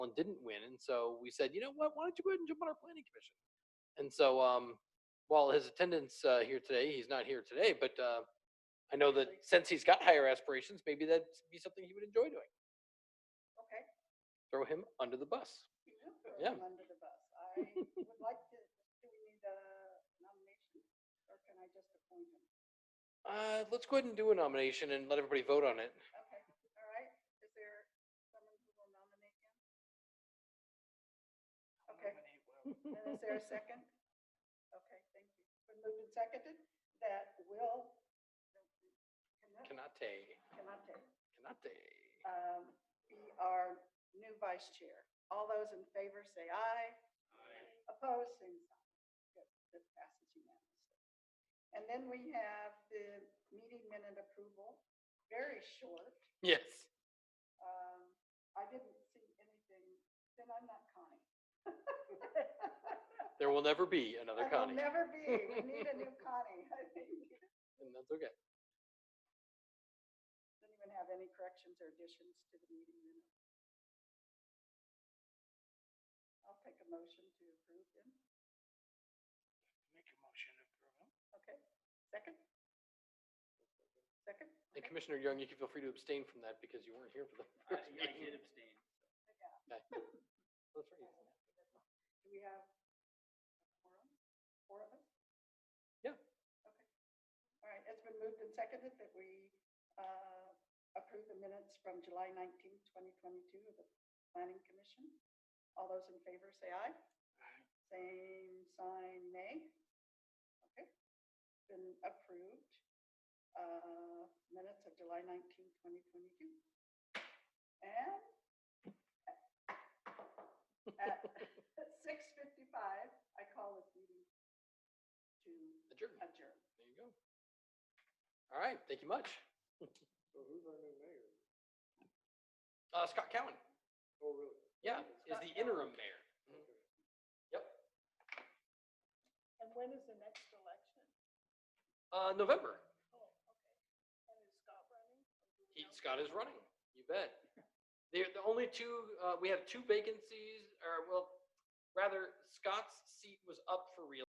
one didn't win. And so we said, you know what? Why don't you go ahead and jump on our planning commission? And so, um, while his attendance uh, here today, he's not here today, but uh, I know that since he's got higher aspirations, maybe that'd be something he would enjoy doing. Okay. Throw him under the bus. You do throw Yeah. them Under the bus. I would like to, do we need a nomination or can I just appoint him? Uh, let's go ahead and do a nomination and let everybody vote on it. Okay, all right. Is there someone who will nominate him? Okay. And is there a second? Okay, thank you. Been moved and seconded that Will, Cannot- Kanate, Cannate, Kanate. um, be our new vice chair. All those in favor say aye. Opposed, same sign. Good, that passes unanimously. And then we have the meeting minute approval, very short. Yes. Um, I didn't see anything, then I'm not Connie. There will never be another I will Connie. never be, we need a new Connie, I think. And that's okay. Does anyone have any corrections or additions to the meeting minutes? I'll take a motion to approve them. Make a motion to approve. Okay, second? Second? And Commissioner Young, you can feel free to abstain from that because you weren't here for the first I meeting. did abstain. Yeah. That's right. Do we have forum? Four of us? Yeah. Okay. All right, it's been moved and seconded that we uh, approve the minutes from July 19, 2022 of the Planning Commission. All those in favor say aye. Aye. Same sign, nay. Okay, been approved. Uh, Minutes of July 19, 2022. And at 6:55, I call this meeting to Adjourned. adjourn. There you go. All right, thank you much. So who's our new mayor? Uh, Scott Cowan, Oh, really? yeah, is the interim mayor. And when is the next election? Uh, November, Oh, okay. And is Scott running? he, Scott is running, you bet. The, the only two, uh, we have two vacancies, or well, rather Scott's seat was up for reelection.